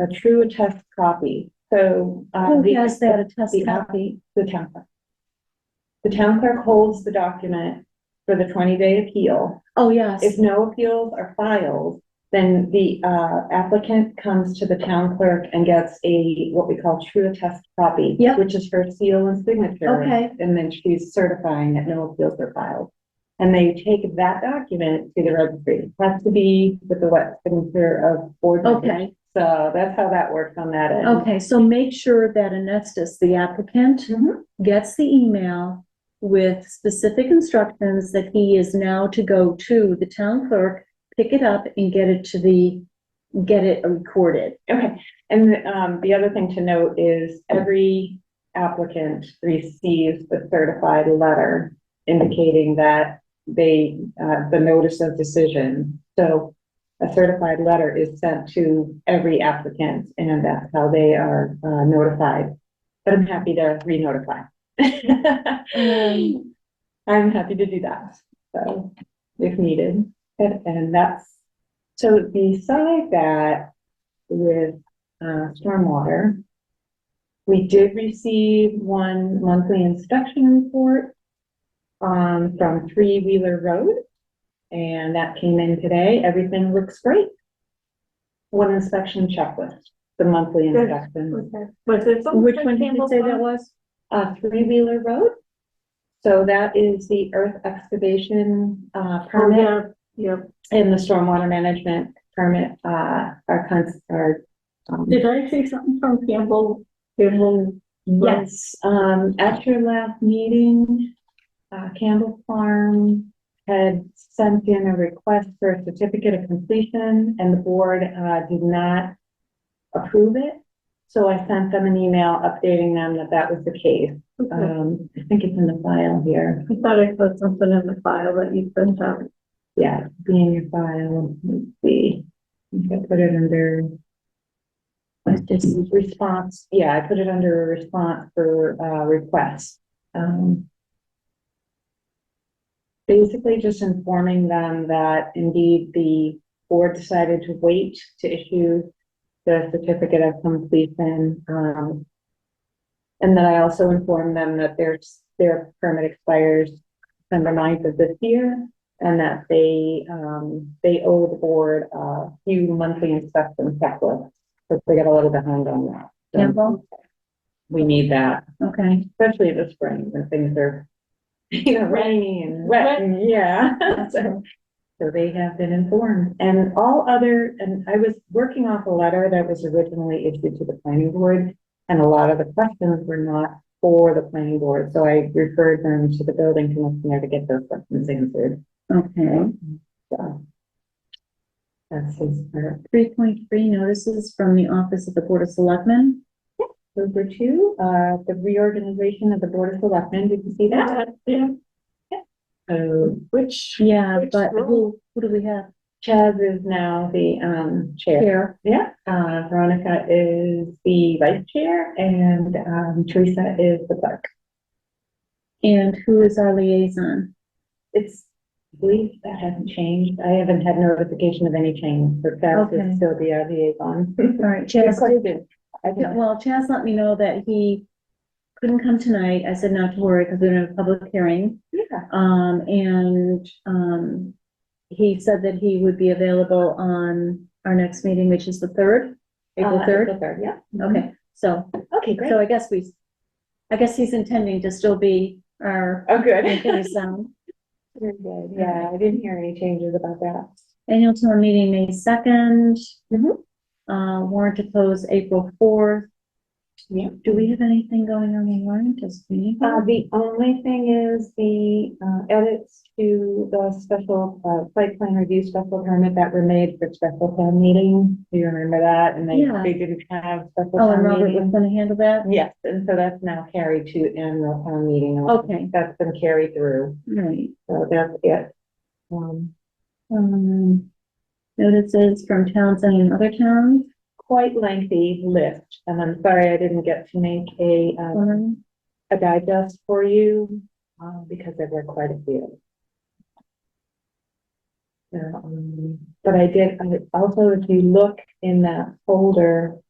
a true attest copy, so. uh, Who the- has that attest the app- copy? The town clerk. The town clerk holds the document for the twenty-day appeal. Oh, yes. If no appeals are filed, then the uh, applicant comes to the town clerk and gets a, what we call true attest copy. Yep. Which is her seal and signature. Okay. And then she's certifying that no appeals are filed. And they take that document to the registry. Has to be with the wet signature of board. members. Okay, So that's how that works on that end. okay, so make sure that Anestis, the applicant, Mhm. gets the email with specific instructions that he is now to go to the town clerk, pick it up and get it to the, get it recorded. Okay, and um, the other thing to note is every applicant receives a certified letter indicating that they, uh, the notice of decision. So a certified letter is sent to every applicant and that's how they are uh, notified. But I'm happy to re-notify. Um, I'm happy to do that, so, if needed, and, and that's, so beside that, with, uh, stormwater, we did receive one monthly inspection report, um, from Three Wheeler Road, and that came in today, everything looks great. One inspection checklist, the monthly Good. inspection, Was it something? Which one did you say that was? uh, Three Wheeler Road. So that is the earth excavation, uh, permit. Oh, Yeah, yeah. And the stormwater management permit, uh, our cons, our. um, Did I see something from Campbell? Campbell? Yes, um, at your last meeting, uh, Campbell Farm had sent in a request for a certificate of completion and the board, uh, did not approve it. So I sent them an email updating them that that was the case. Okay. Um, I think it's in the file here. I thought I saw something in the file that you sent out. Yeah, it'd be in your file, let's see. I think I put it under. Response, yeah, I put it under a response for, uh, request. Um. Basically just informing them that indeed the board decided to wait to issue the certificate of completion, um. And then I also informed them that their, their permit expires December 9th of this year. And that they, um, they owe the board a few monthly inspection checklists, but they got a little behind on that. So Campbell? We need that, Okay. especially this spring when things are, you know, rainy and wet and, yeah. So- So they have been informed and all other, and I was working off a letter that was originally issued to the planning board. And a lot of the questions were not for the planning board, so I referred them to the building commissioner to get those questions answered. Okay. So. That's his uh, part. Three point three notices from the Office of the Board of Selectmen. Number two, uh, the reorganization of the Board of Selectmen, did you see that? Yeah, So which, Yeah, Which but one? who, who do we have? Chaz is now the, um, chair. Here. Yeah, uh, Veronica is the vice chair and, um, Teresa is the clerk. And who is our liaison? It's, I believe that hasn't changed. I haven't had notification of any change, but Chaz Okay. is still the uh, liaison. All right, Your Chaz, question? I Yeah, think, well, Chaz let me know that he couldn't come tonight. I said not to worry because we're in a public hearing. yeah, uh, Um, and, um, he said that he would be available on our next meeting, which is the third, April uh, third. Third, yeah. Okay, so, Okay, great. so I guess we, I guess he's intending to still be our Oh, good. liaison. Very good. Yeah, I didn't hear any changes about that. Annual town meeting, May second. Mhm. Uh, warrant to close April fourth. Yeah. Do we have anything going on in warrant? Does we? Uh, the only thing is the, uh, edits to the special, uh, site plan review special permit that were made for special town meeting. Do you remember that? And they, Yeah. they didn't have special Oh, and town Robert was meeting. gonna handle that? Yes, and so that's now carried to annual town meeting. Okay. That's been carried through, Right. so that's it. Um, Um, notices from towns and other towns. quite lengthy list, and I'm sorry I didn't get to make a, um, Um, a digest for you, um, because there were quite a few. Um, But I did, I also, if you look in that folder,